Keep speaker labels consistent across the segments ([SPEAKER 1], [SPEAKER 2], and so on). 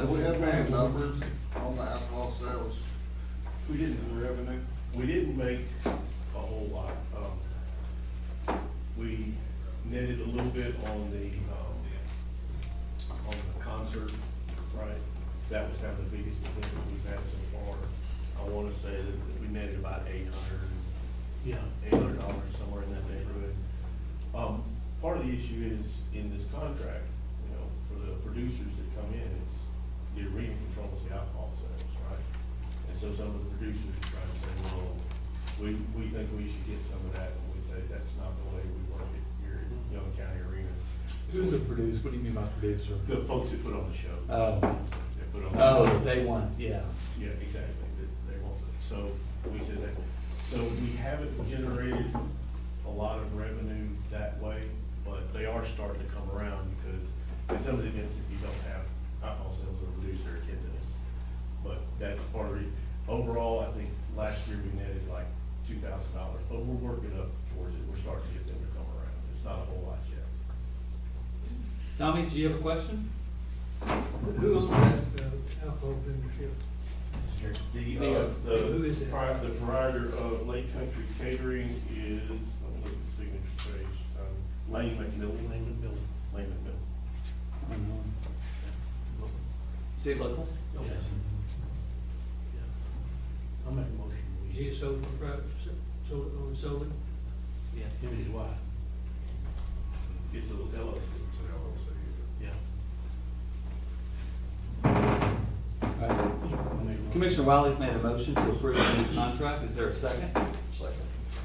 [SPEAKER 1] Do we have any numbers on the alcohol sales?
[SPEAKER 2] We didn't,
[SPEAKER 1] Revenue?
[SPEAKER 2] we didn't make a whole lot. Um, We netted a little bit on the, um, on the concert, right? That was kind of the biggest event that we've had so far. I wanna say that we netted about eight hundred, yeah, eight hundred dollars, somewhere in that neighborhood. Um, part of the issue is in this contract, you know, for the producers that come in, it's, the arena controls the alcohol sales, right? And so some of the producers are trying to say, well, we, we think we should get some of that, and we say, that's not the way we work it here at Young County Arena.
[SPEAKER 3] Who's a producer? What do you mean by producer?
[SPEAKER 2] The folks that put on the show.
[SPEAKER 3] Oh,
[SPEAKER 2] They put on. the-
[SPEAKER 3] oh, they want, yeah.
[SPEAKER 2] Yeah, exactly, that they want it, so we said that, so we haven't generated a lot of revenue that way, but they are starting to come around, because in some of the events, if you don't have alcohol sales, it'll reduce their attendance. But that's part of it, overall, I think last year we netted like two thousand dollars, but we're working up towards it, we're starting to get them to come around, it's not a whole lot yet.
[SPEAKER 4] Tommy, do you have a question?
[SPEAKER 5] Who owned that uh, alcohol vendorship?
[SPEAKER 2] The,
[SPEAKER 4] The,
[SPEAKER 2] uh,
[SPEAKER 5] who is
[SPEAKER 2] the,
[SPEAKER 5] it?
[SPEAKER 2] pri- the provider of Lake Country Catering is, let me look at the signature page, um, Lane McMillan. Lane McMillan. Lane McMillan.
[SPEAKER 4] Is it local?
[SPEAKER 5] Yes.
[SPEAKER 6] I'll make a motion.
[SPEAKER 5] Is he a sole proprietor, so- so- owned solely?
[SPEAKER 6] Yeah, him and his wife,
[SPEAKER 2] It's a little LLC. It's an LLC.
[SPEAKER 6] yeah.
[SPEAKER 3] Right.
[SPEAKER 6] I'll make a motion.
[SPEAKER 3] Commissioner Wiley's made a motion to approve the new contract. Is there a second?
[SPEAKER 1] Second.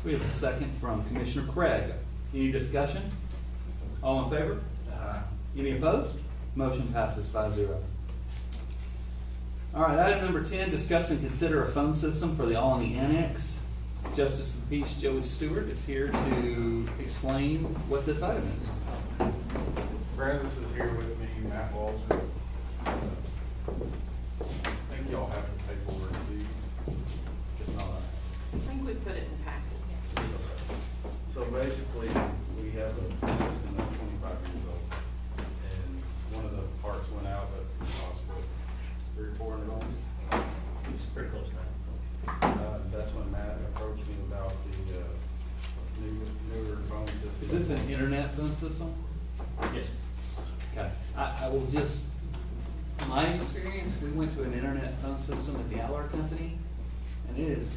[SPEAKER 3] We have a second from Commissioner Craig. Any discussion? All in favor?
[SPEAKER 1] Aye.
[SPEAKER 3] Any opposed? Motion passes five zero. All right, item number ten, discuss and consider a phone system for the Alany Annex. Justice of the Peace Joey Stewart is here to explain what this item is.
[SPEAKER 7] Francis is here with me, Matt Walter. I think y'all have the paperwork, do you? If not, I-
[SPEAKER 8] I think we put it in the packets.
[SPEAKER 7] so basically, we have a system that's twenty-five years old, and one of the parts went out, that's possible, three, four hundred on it.
[SPEAKER 2] It's pretty close now.
[SPEAKER 7] Uh, that's when Matt approached me about the, uh, newer, newer phone system.
[SPEAKER 3] Is this an internet phone system?
[SPEAKER 2] Yes.
[SPEAKER 3] Okay, I, I will just, my experience, we went to an internet phone system at the Aller Company, and it is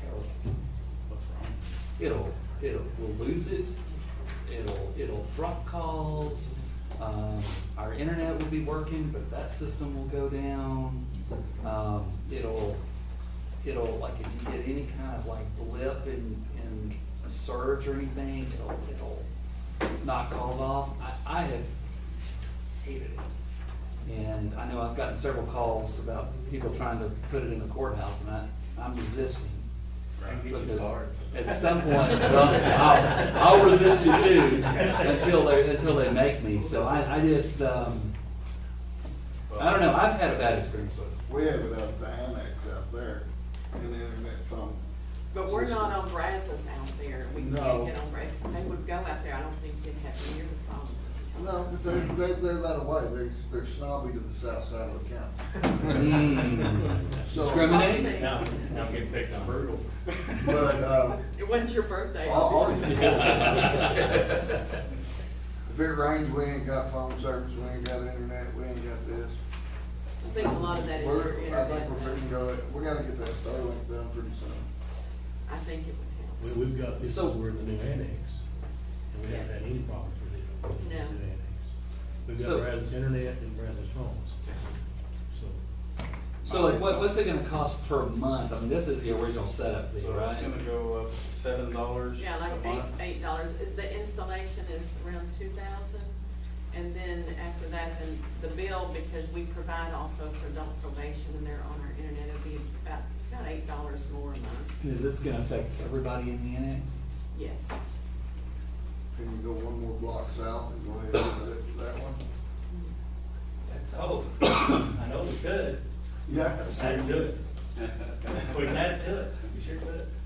[SPEAKER 3] terrible.
[SPEAKER 7] What's wrong?
[SPEAKER 3] It'll, it'll, we'll lose it, it'll, it'll drop calls, um, our internet will be working, but that system will go down. Um, it'll, it'll, like, if you get any kind of like blip in, in a surge or anything, it'll, it'll knock calls off. I, I have hated it. And I know I've gotten several calls about people trying to put it in the courthouse, and I, I'm resisting.
[SPEAKER 2] Right.
[SPEAKER 3] Because At some point, well, I'll, I'll resist you too, until they, until they make me, so I, I just, um, I don't know, I've had a bad experience with it.
[SPEAKER 1] We have it up at the annex out there, in the internet phone.
[SPEAKER 8] But we're not on Brazos out there, we
[SPEAKER 1] No.
[SPEAKER 8] can't get on Brazos, they would go out there, I don't think you'd have near the phone.
[SPEAKER 1] No, they're, they're, they're that away, they're, they're snobby to the south side of the
[SPEAKER 2] Mm.
[SPEAKER 1] county.
[SPEAKER 3] Hmm.
[SPEAKER 1] So-
[SPEAKER 3] Discriminate?
[SPEAKER 2] Now, now I'm getting picked on brutal.
[SPEAKER 1] But, uh,
[SPEAKER 8] It wasn't your birthday,
[SPEAKER 1] all, all you
[SPEAKER 8] obviously.
[SPEAKER 1] If it rains, we ain't got phone service, we ain't got internet, we ain't got this.
[SPEAKER 8] I think a lot of that is
[SPEAKER 1] We're,
[SPEAKER 8] your
[SPEAKER 1] I think
[SPEAKER 8] internet.
[SPEAKER 1] we're fixing to go, we gotta get that Starlink done pretty soon.
[SPEAKER 8] I think it would
[SPEAKER 6] We, we've got, this is
[SPEAKER 3] So-
[SPEAKER 6] we're in the new annex, and we haven't had any problems with it. with the
[SPEAKER 8] No.
[SPEAKER 6] new annex. We've
[SPEAKER 3] So-
[SPEAKER 6] got Brazos internet and Brazos phones, so.
[SPEAKER 3] So like, what, what's it gonna cost per month? I mean, this is the original setup fee,
[SPEAKER 7] So it's
[SPEAKER 3] right?
[SPEAKER 7] gonna go up seven dollars
[SPEAKER 8] help.
[SPEAKER 7] a
[SPEAKER 8] Yeah, like
[SPEAKER 7] month.
[SPEAKER 8] eight, eight dollars, the installation is around two thousand, and then after that, then the bill, because we provide also for adult probation, and they're on our internet, it'd be about, about eight dollars more a month,
[SPEAKER 3] Is this gonna affect everybody in the annex?
[SPEAKER 8] yes.
[SPEAKER 1] Can you go one more block south and go ahead and do that- that one?
[SPEAKER 9] That's hope. I know we could.
[SPEAKER 1] Yeah.
[SPEAKER 9] I can do it. We can add it to it. We sure could. uh,